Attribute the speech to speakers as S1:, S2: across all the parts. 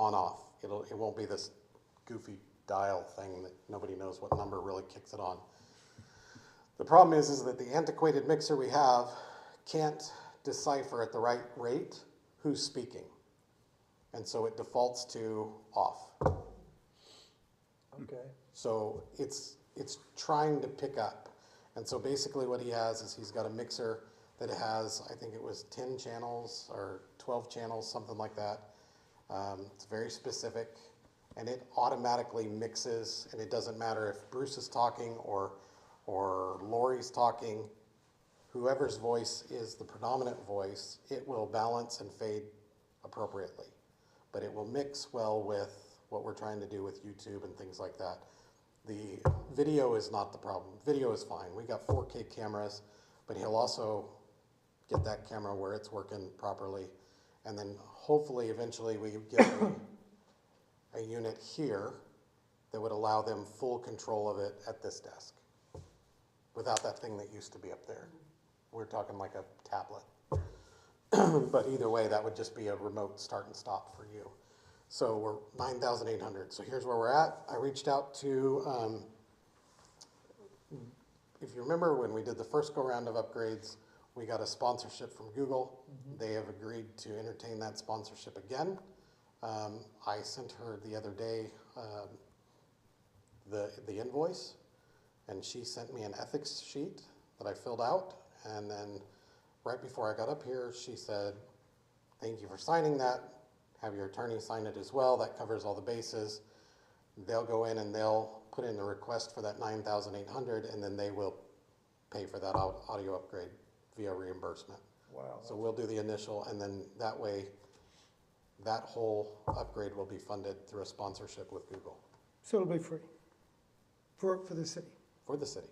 S1: on-off. It'll, it won't be this goofy dial thing that nobody knows what number really kicks it on. The problem is, is that the antiquated mixer we have can't decipher at the right rate who's speaking. And so it defaults to off.
S2: Okay,
S1: So it's, it's trying to pick up. And so basically what he has is he's got a mixer that has, I think it was ten channels or twelve channels, something like that. Um, it's very specific and it automatically mixes and it doesn't matter if Bruce is talking or, or Lori's talking, whoever's voice is the predominant voice, it will balance and fade appropriately. But it will mix well with what we're trying to do with YouTube and things like that. The video is not the problem. Video is fine. We got 4K cameras, but he'll also get that camera where it's working properly. And then hopefully, eventually, we get a, a unit here that would allow them full control of it at this desk without that thing that used to be up there. We're talking like a tablet. but either way, that would just be a remote start and stop for you. So we're 9,800. So here's where we're at. I reached out to, um, if you remember when we did the first go round of upgrades, we got a sponsorship from Google. They have agreed to entertain that sponsorship again. Um, I sent her the other day um, the, the invoice, and she sent me an ethics sheet that I filled out. And then right before I got up here, she said, Thank you for signing that. Have your attorney sign it as well. That covers all the bases. They'll go in and they'll put in the request for that 9,800 and then they will pay for that au- audio upgrade via reimbursement.
S2: wow.
S1: So we'll do the initial and then that way that whole upgrade will be funded through a sponsorship with Google
S3: So it'll be free for, for the city.
S1: for the city.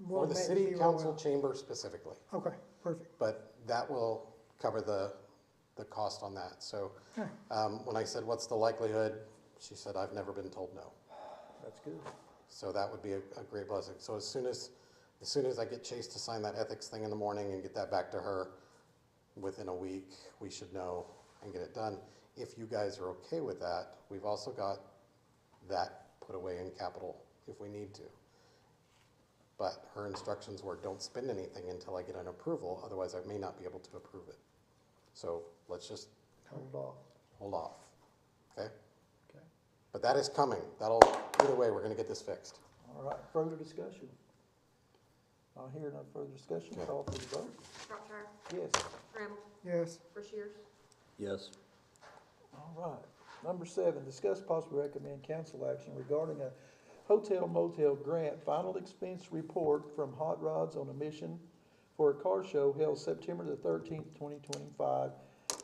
S3: Well,
S1: For the
S3: maybe
S1: city
S3: we will.
S1: council chamber specifically,
S3: Okay, perfect.
S1: but that will cover the, the cost on that. So,
S3: Okay.
S1: um, when I said, what's the likelihood? She said, I've never been told no.
S2: That's good.
S1: So that would be a, a great blessing. So as soon as, as soon as I get Chase to sign that ethics thing in the morning and get that back to her, within a week, we should know and get it done. If you guys are okay with that, we've also got that put away in capital if we need to. But her instructions were, don't spend anything until I get an approval, otherwise I may not be able to approve it. So let's just
S2: Hold off.
S1: hold off, okay?
S2: Okay.
S1: But that is coming. That'll, either way, we're gonna get this fixed.
S2: All right, further discussion? I'll hear no further discussion,
S1: Okay.
S2: call for the vote.
S4: Shropshire,
S2: Yes,
S4: Trammell,
S3: Yes,
S4: Brashears,
S5: Yes.
S2: all right. Number seven, discuss possibly recommend council action regarding a hotel motel grant final expense report from Hot Rods on a mission for a car show held September the thirteenth, twenty twenty-five,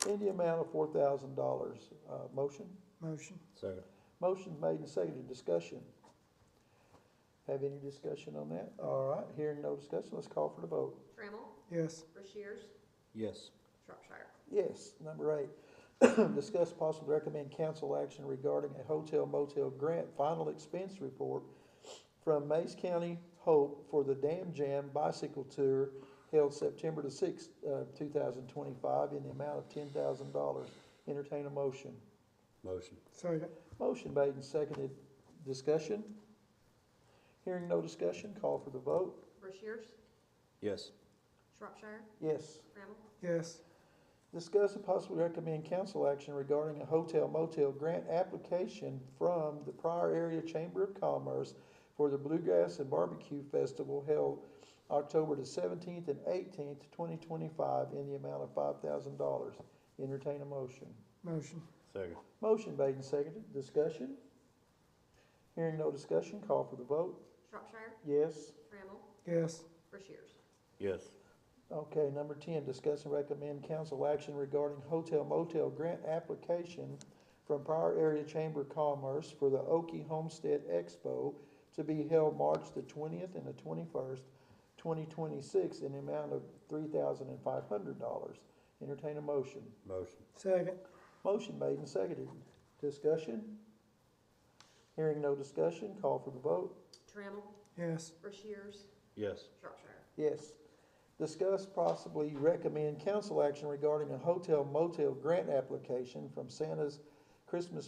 S2: in the amount of four thousand dollars. Uh, motion?
S3: motion.
S5: Second.
S2: Motion's made and seconded, discussion. Have any discussion on that? All right, hearing no discussion, let's call for the vote.
S4: Trammell,
S3: Yes,
S4: Brashears,
S5: Yes.
S4: Shropshire.
S2: Yes, number eight, discuss possibly recommend council action regarding a hotel motel grant final expense report from Mays County Hope for the Dam Jam Bicycle Tour held September the sixth, uh, two thousand twenty-five in the amount of ten thousand dollars. Entertain a motion.
S5: Motion.
S3: second.
S2: Motion made and seconded, discussion? Hearing no discussion, call for the vote.
S4: Brashears,
S5: Yes.
S4: Shropshire,
S2: Yes.
S4: Trammell,
S3: Yes,
S2: Discuss and possibly recommend council action regarding a hotel motel grant application from the Prior Area Chamber of Commerce for the Bluegrass and Barbecue Festival held October the seventeenth and eighteenth, twenty twenty-five, in the amount of five thousand dollars. Entertain a motion.
S3: motion.
S5: Second.
S2: Motion made and seconded. Discussion? Hearing no discussion, call for the vote.
S4: Shropshire,
S2: Yes?
S4: Trammell,
S3: Yes,
S4: Brashears.
S5: Yes.
S2: Okay, number ten, discuss and recommend council action regarding hotel motel grant application from Prior Area Chamber of Commerce for the Okie Homestead Expo to be held March the twentieth and the twenty-first, twenty twenty-six, in the amount of three thousand and five hundred dollars. Entertain a motion.
S5: Motion.
S3: second.
S2: Motion made and seconded. Discussion? Hearing no discussion, call for the vote.
S4: Trammell,
S3: Yes,
S4: Brashears,
S5: Yes.
S4: Shropshire.
S2: Yes. Discuss possibly recommend council action regarding a hotel motel grant application from Santa's Christmas